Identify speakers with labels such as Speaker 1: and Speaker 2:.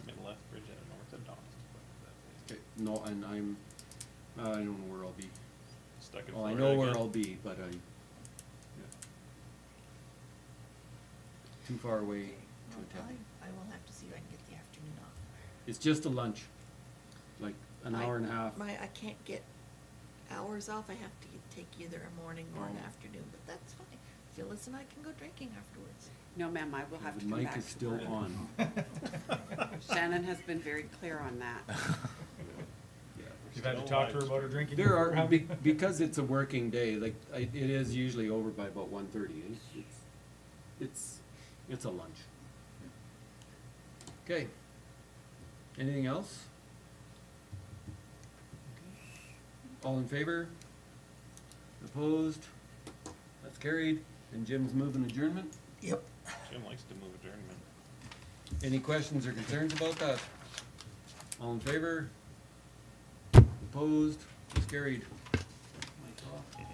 Speaker 1: Norton, I'm, uh, I don't know where I'll be.
Speaker 2: Stuck in
Speaker 1: Well, I
Speaker 2: Florida
Speaker 1: know where
Speaker 2: again?
Speaker 1: I'll be, but I, yeah. Too far away to
Speaker 3: Well,
Speaker 1: attend.
Speaker 3: I, I will have to see if I can get the afternoon off.
Speaker 1: It's just a lunch, like an
Speaker 3: I-
Speaker 1: hour and a half.
Speaker 3: My, I can't get hours off, I have to get- take either a morning or an
Speaker 1: Oh.
Speaker 3: afternoon, but that's fine. Phyllis and I can go drinking afterwards.
Speaker 4: No, ma'am, I will have to
Speaker 1: The
Speaker 4: come
Speaker 1: mic
Speaker 4: back
Speaker 1: is
Speaker 4: to
Speaker 1: still
Speaker 4: work.
Speaker 1: on.
Speaker 4: Shannon has been very clear on that.
Speaker 1: Yeah.
Speaker 5: You've had to talk to her about her drinking?
Speaker 1: There are, be-
Speaker 5: problem?
Speaker 1: because it's a working day, like, I- it is usually over by about one thirty. It's, it's a lunch. Okay. Anything else? All in favor? Opposed? That's carried. And Jim's moving adjournment.
Speaker 3: Yep.
Speaker 2: Jim likes to move adjournment.
Speaker 1: Any questions or concerns about that? All in favor? Opposed? It's carried.